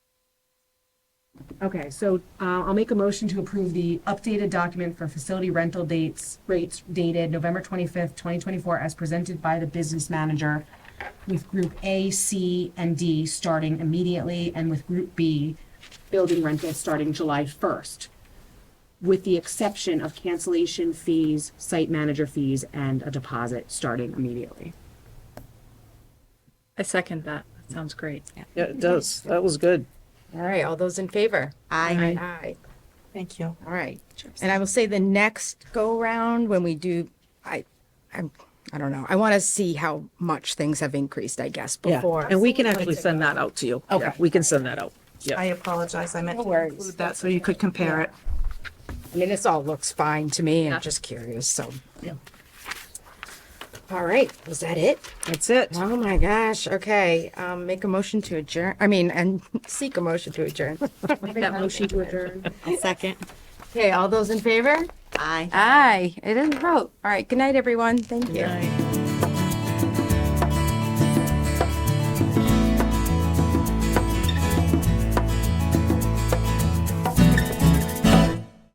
Okay, so uh, I'll make a motion to approve the updated document for facility rental dates, rates dated November 25th, 2024, as presented by the business manager with Group A, C, and D starting immediately, and with Group B, building rental starting July 1st, with the exception of cancellation fees, site manager fees, and a deposit starting immediately. I second that. That sounds great. Yeah, it does. That was good. All right, all those in favor? Aye. Aye. Thank you. All right. And I will say the next go round when we do, I, I'm, I don't know. I want to see how much things have increased, I guess, Yeah. before. And we can actually send that out to you. Yeah, Okay. We can send that out. Yeah. I apologize. I meant No to worries. include that so you could compare it. I mean, this all looks fine to me. I'm just curious, so. All right, was that it? That's it. Oh my gosh, okay. Um, make a motion to adjourn, I mean, and seek a motion to adjourn. Make that motion to adjourn. A second. Okay, all those in favor? Aye. Aye, it is a vote. All right, good night, everyone. Thank you.